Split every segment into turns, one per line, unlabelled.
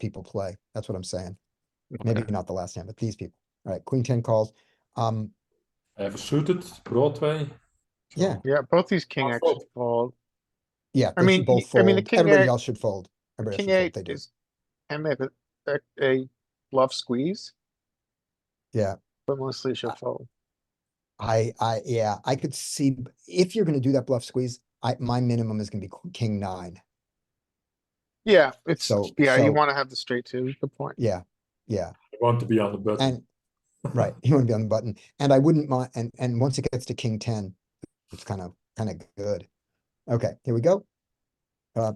people play. That's what I'm saying. Maybe not the last hand, but these people. All right, queen ten calls. Um,
Hij versuited, Broadway. Zo.
yeah,
Yeah, both these king
I'll
X
fold.
fold.
yeah.
I
they should
mean,
both
y- I mean, the
fold.
king
Everybody
eight-
else should fold. Everybody
King
else should
eight
fold. They do.
is, and maybe a, a bluff squeeze,
Yeah.
but mostly should
Uh,
fold.
I, I, yeah, I could see b- if you're gonna do that bluff squeeze, I, my minimum is gonna be qu- king nine.
Yeah, it's,
so-
yeah,
so-
you wanna have the straight two, is the point.
Yeah, yeah.
I want to be on the button.
And, right, you wanna be on the button. And I wouldn't mind, and, and once it gets to king ten, it's kind of, kind of good. Okay, here we go. Uh,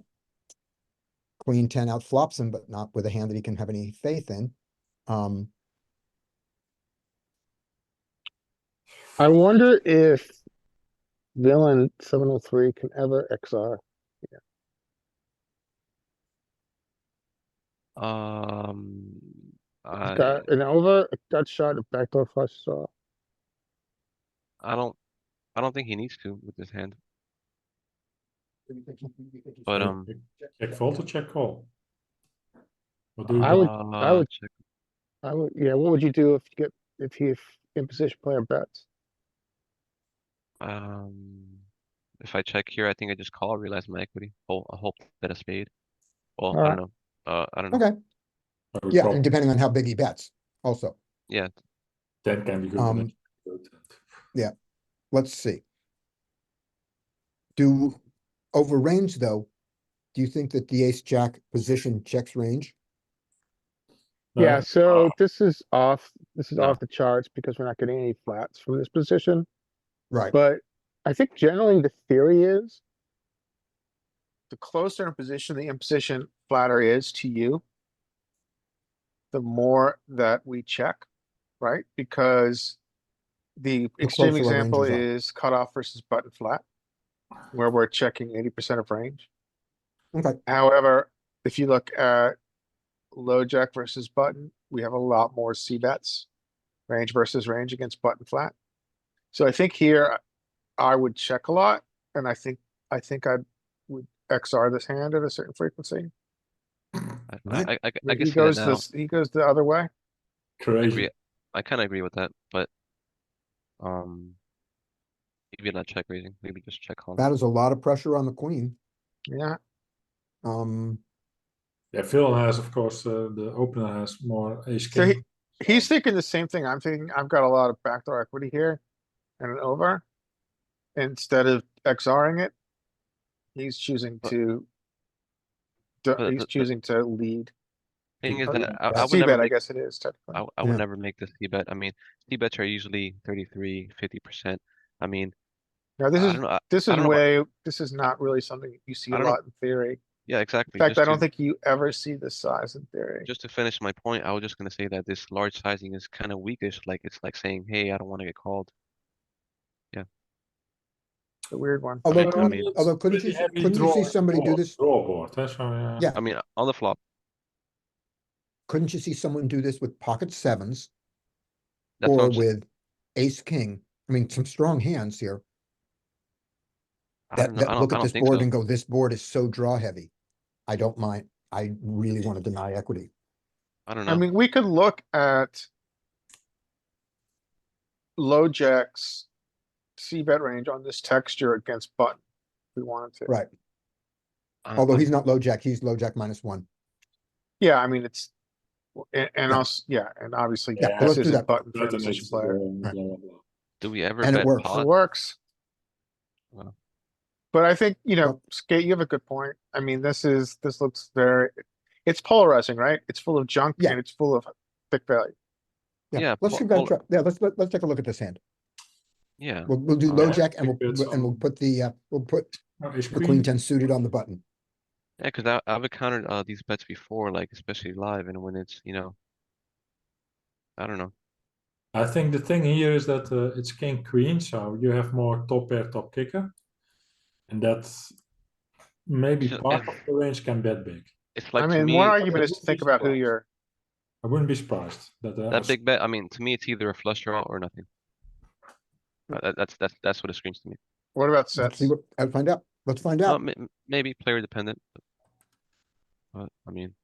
Queen ten out flops him, but not with a hand that he can have any faith in. Um,
I wonder if villain seven oh three can ever XR.
Um,
He's
I,
got an over, a gut shot, a backdoor flush draw.
I don't, I don't think he needs to with this hand. But, um,
Check fold or check call? What
Ah,
do you
I
do?
would-
Uh,
would-
check.
I would, yeah, what would you do if you get, if he, if in position player bets?
Um, if I check here, I think I just call, realize my equity. Oh, I hope that a spade. Well, I
Alright.
don't know. Uh, I don't know.
okay,
I would
yeah,
probably-
and depending on how big he bets also.
Yeah,
Ten can be good.
Um,
but it's good.
let's see. Do, over range though, do you think that the ace jack position checks range?
No,
Yeah, so this is off, this is
No.
off the charts because we're not getting any flats from this position.
Right,
But I think generally the theory is the closer in position the imposition flatter is to you, the more that we check, right? Because the extreme
closer our
example
ranges are.
is cutoff versus button flat, where we're checking eighty percent of range.
okay,
However, if you look at low jack versus button, we have a lot more C bets, range versus range against button flat. So I think here I would check a lot, and I think, I think I would XR this hand at a certain frequency.
I,
Right.
I, I, I- I
He
can see that
goes
now.
this, he goes the other way.
Crazy.
I kind of agree with that, but, um, maybe not check raising, maybe just check calling.
that is a lot of pressure on the queen,
Yeah,
um,
Yeah, Phil has, of course, uh, the opener has more ace
So
king.
he's thinking the same thing. I'm thinking, I've got a lot of backdoor equity here and an over. Instead of XRing it, he's choosing
But-
to
but
du- he's
the- the-
choosing to lead.
Thing is
Oh,
that I, I would
C
never
bet, I
make,
guess it is technically.
I, w- I would
Yeah.
never make this C bet. I mean, C bets are usually 33, 50%. I mean,
Now, this
I
is,
don't know. I-
this
I
is
don't know about-
way, this is not really something you see
I
a
don't know.
lot in theory.
Yeah, exactly.
In fact,
just
I
to-
don't think you ever see this size in theory.
Just to finish my point, I was just gonna say that this large sizing is kind of weakish, like it's like saying, hey, I don't want to get called.
It's a weird one.
although,
mean- I
couldn't-
mean-
although couldn't you,
Pretty heavy
couldn't you
draw-
see somebody do
draw-
this?
Draw board, eh, so, yeah.
Yeah.
I mean, on the flop,
Couldn't you see someone do this with pocket sevens
that's what
or
I'm saying.
with ace, king? I mean, some strong hands here
I
that,
don't know, I
that look
don't, I
at
don't
this
think
board
so.
and go, this board is so draw heavy. I don't mind, I really wanna deny equity.
I don't
I
know.
mean, we could look at low jacks, C bet range on this texture against button. if We wanted to.
Right.
I-
Although
I'm-
he's not low jack, he's low jack minus one.
Yeah, I mean, it's, and, and
Yeah.
also, yeah, and obviously
Yeah,
this
let's do that.
isn't button for a
Button
position
is,
player.
um,
Right.
blah, blah, blah.
Do we ever
and it
bet
works.
It
pot?
works.
Wow.
But I think, you know,
Well-
Skate, you have a good point. I mean, this is, this looks very, it's polarizing, right? It's full of junk
Yeah.
and it's full of thick value.
Yeah,
Let's
pol-
give that, a
polar-
try. yeah, let's, let- let's take a look at this hand.
Yeah,
We'll, we'll do
Uh,
low
yeah,
jack and
I think
we'll,
that's
and we'll
all.
put the, uh, we'll put
Oh, ace
the queen ten suited on the button.
yeah, because I, I've encountered uh these bets before, like especially live and when it's, you know. I don't know.
I think the thing here is that uh, it's king queen, so you have more top pair, top kicker, and that's maybe
So
part
if-
of the range can bet big.
It's
I
like to
mean,
me,
one argument
I
is to
would
think
be
about who
surprised.
you're,
I wouldn't be surprised that uh,
that big bet, I mean, to me, it's either a flush draw or nothing. Uh, That, that's, that's, that's what it screams to me.
what about
Let's
sets?
see what, I'll find out. Let's find
Well,
out.
may- maybe player dependent. But, but, I mean,